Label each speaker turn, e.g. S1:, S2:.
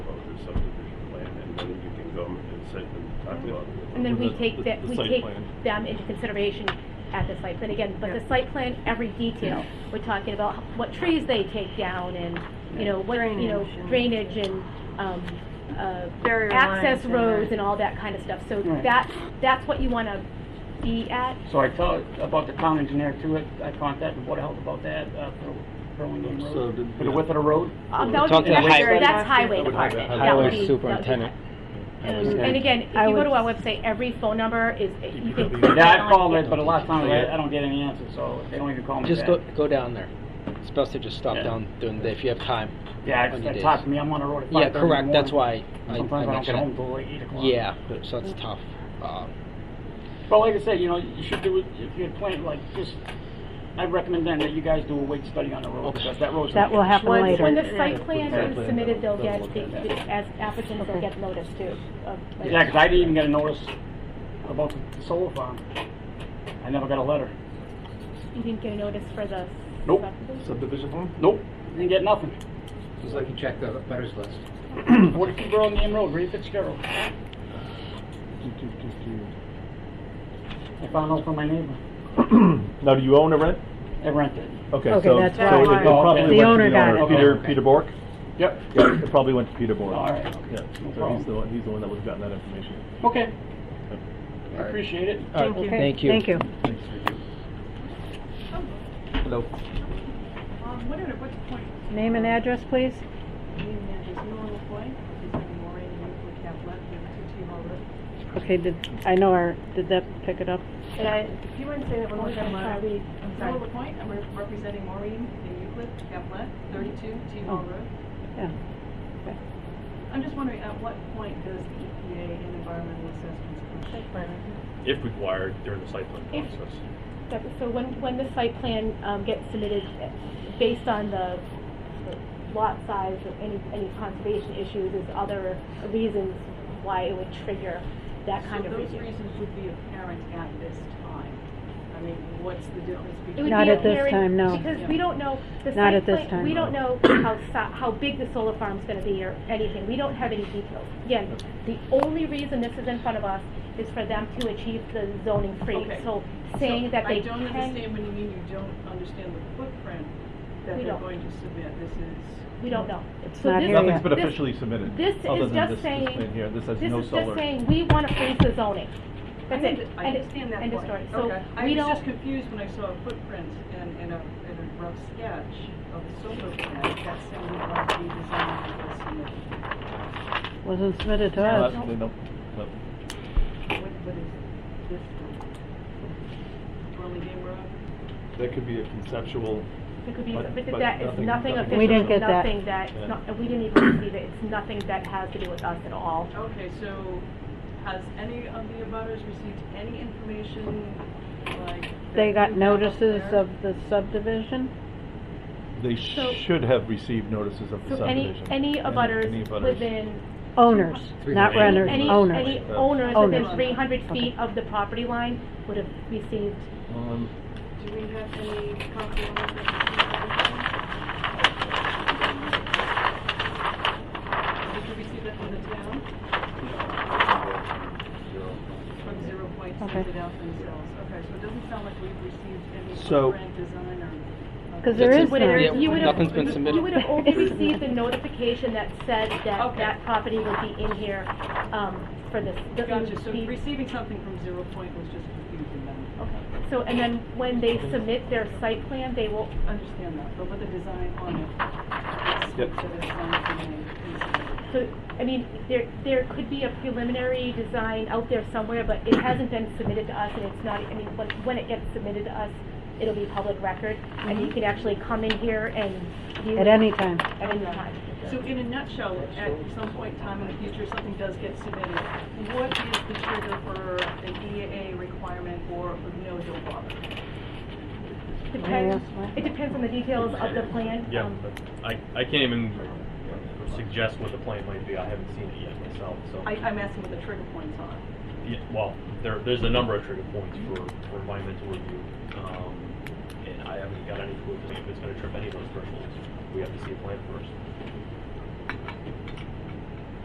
S1: site that we talked about.
S2: And then
S1: with
S2: we
S1: the-
S2: take
S1: the-
S2: that,
S1: the
S2: we
S1: site
S2: take
S1: plan.
S2: them into consideration at the site plan again, but the
S3: Yeah.
S2: site plan, every detail, we're talking about h- what trees they take down and, you know, what, you know,
S3: Drainage
S2: drainage and, um, uh,
S3: Barrier
S2: access
S3: lines and
S2: roads
S3: that.
S2: and all that kind of stuff, so
S4: Right.
S2: that, that's what you wanna be at.
S4: So I tell about the town engineer too, I I contacted Board of Health about that, uh, for Burlingame
S1: So
S4: Road.
S1: did-
S4: For the width of the road?
S2: Um, that would
S5: Talk
S2: be,
S5: to the
S2: that's,
S5: highway-
S2: that's
S1: That would
S2: highway
S1: be highway
S2: department. That would be-
S5: Highway
S2: that would be highway.
S5: superintendent.
S2: And and again, if
S3: I
S2: you go
S3: would-
S2: to our website, every phone number is, you can. click
S4: Yeah, I
S2: on
S4: called it,
S2: it.
S4: but a lot of times I I don't get any answers, so they don't even call me back.
S5: Just go, go down there. It's best to just stop
S4: Yeah.
S5: down during the day if you have time.
S4: Yeah, it's-
S5: on your
S4: it
S5: days.
S4: talks to me, I'm on the road at
S5: Yeah,
S4: 5:30 in the
S5: correct, that's
S4: morning.
S5: why I, I
S4: Sometimes I don't get home
S5: mentioned
S4: till like eight
S5: that.
S4: o'clock.
S5: Yeah, so it's tough. Um,
S4: But like I said, you know, you should do it, if you plan, like, just, I recommend then that you guys do a weight study on the road,
S5: Okay.
S4: because that road's.
S3: That will happen
S2: When,
S3: later.
S2: when the site plan
S1: Site
S2: is
S1: plan,
S2: submitted, they'll
S1: they'll
S2: get,
S1: look
S2: the-
S1: at
S2: the- as applicants, they'll
S3: Okay.
S2: get notice too. of, like-
S4: Yeah, because I didn't even get a notice about the- the solar farm. I never got a letter.
S2: You didn't get a notice for the.
S4: Nope.
S1: Subdivision plan?
S4: Nope, didn't get nothing.
S6: Just like you check the butters list.
S4: Forty-two Burlingame Road, Ray Fitzgerald. I found out from my neighbor.
S7: Now, do you own or rent?
S4: I rented.
S7: Okay,
S3: Okay,
S7: so,
S3: that's
S7: so
S3: why.
S7: it- it
S4: Oh,
S7: probably
S4: okay.
S7: went
S4: The
S7: to the
S3: owner got it.
S7: owner, Peter,
S6: Okay.
S7: Peter Bork?
S4: Yep.
S7: Yeah, It probably went to Peter Bork.
S4: All right.
S7: Yeah,
S4: No
S7: so
S4: problem.
S7: he's the, one- he's the one that would've gotten that information.
S4: Okay. I appreciate it.
S5: all right,
S3: Okay,
S5: Thank you.
S3: Thank you.
S6: Hello.
S8: Um, what are, what's the point?
S3: Name and address, please.
S8: Meaning that there's no other point, is there more in the would have left than two team already?
S3: Okay, did, I know our, did that pick it up?
S2: And I,
S8: If you wouldn't say that one more time,
S2: I
S8: Laura.
S2: read-
S8: I'm sorry. More point, and we're representing Maureen in Euclid, Caplet, thirty-two, T Hall
S2: Oh.
S8: Road.
S3: Yeah.
S8: I'm just wondering, at what point does the EPA and environmental assessments come into play?
S1: If required during the site plan
S2: If-
S1: process.
S2: that- so when, when the site plan, um, gets submitted, uh, based on the the lot size or any, any conservation issues, there's other reasons why it would trigger that kind of
S8: So those
S2: review.
S8: reasons would be apparent at this time. I mean, what's the difference
S2: It would
S8: between?
S3: Not
S2: be
S3: at this
S2: apparent
S3: time, no.
S2: Because we don't know the
S3: Not
S2: site
S3: at this
S2: plan-
S3: time.
S2: We don't know how, si- how big the solar farm's gonna be or anything. We don't have any details. Again, the only reason this is in front of us is for them to achieve the zoning free.
S8: Okay.
S2: So saying that they
S8: I don't
S2: can,
S8: understand when you mean you don't understand the footprint that
S2: We
S8: they're
S2: don't.
S8: going to submit, this is.
S2: we don't know.
S3: It's
S2: So
S3: not
S2: this-
S3: here
S7: Nothing's
S3: yet.
S7: been
S2: this-
S7: officially submitted,
S2: this
S7: other
S2: is
S7: than this,
S2: just
S7: this
S2: saying-
S7: plan here, this has
S2: This
S7: no
S2: is just
S7: solar.
S2: saying, we wanna freeze the zoning. That's
S8: I
S2: it.
S8: under- I
S2: End of-
S8: understand that
S2: End of story.
S8: point.
S2: So
S8: Okay.
S2: we
S8: I was just
S2: don't,
S8: confused when I saw a footprint and, and a, and a rough sketch of the solar plant, that sounded like the design that was submitted.
S3: Wasn't submitted to
S7: No,
S3: us.
S7: that- they don't- no.
S8: What, what is this one? Burlingame Road?
S1: That could be a conceptual,
S2: it could be,
S7: But-
S2: but
S7: but
S2: that is
S7: nothing-
S2: nothing
S7: nothing-
S2: official.
S3: We didn't get that.
S2: Nothing that,
S7: Yeah.
S2: not- we didn't even receive it. It's nothing that has to do with us at all.
S8: Okay, so has any of the abutters received any information, like? that
S3: They
S8: you
S3: got
S8: have up
S3: notices
S8: there?
S3: of the subdivision?
S7: They
S2: So-
S7: should have received notices of the
S2: So any,
S7: subdivision.
S2: any abutters
S7: any abutters.
S2: within,
S3: Owners,
S6: Three
S3: not
S6: hundred.
S3: renters,
S2: any, any
S3: owners.
S2: owners
S3: Owners.
S2: within three hundred
S3: Okay.
S2: feet of the property line would have received,
S7: Um,
S8: Do we have any copy of that? Did you receive that from the town? From Zero Point sent
S3: Okay.
S8: it out themselves. Okay, so it doesn't sound like we've received any
S5: So-
S8: footprint design or. uh,
S3: Because there
S5: That's
S3: is
S5: it.
S2: would have,
S5: Yeah,
S2: you would have.
S5: nothing's been submitted.
S2: You would have only received a notification that said that
S8: Okay.
S2: that property would be in here, um, for this. the-
S8: Gotcha, so
S2: the-
S8: receiving something from Zero Point was just confusing them. Okay,
S2: So, and then when they submit their site plan, they will,
S8: understand that, but with the design on it. it's-
S7: Yep.
S8: so there's something in
S2: so, I mean, there, there could be a preliminary design out there somewhere, but it hasn't been submitted to us, and it's not, I mean, when, when it gets submitted to us, it'll be public record, and you can actually come in here and view.
S3: Mm-hmm. At
S2: it
S3: any time.
S2: At any time.
S8: it. So in a nutshell, at some point in time in the future, something does get submitted, what is the trigger for an EAA requirement or no don't bother?
S2: Depends,
S3: else, what?
S2: it depends on the details of the plan.
S9: Yeah,
S2: um,
S9: but I, I can't even suggest what the plan might be. I haven't seen it yet myself, so.
S8: I, I'm asking what the trigger points are.
S9: Yeah, well, there, there's a number of trigger points for, for environmental review. Um, and I haven't got any clue if it's gonna trip any of those thresholds. We have to see a plan first.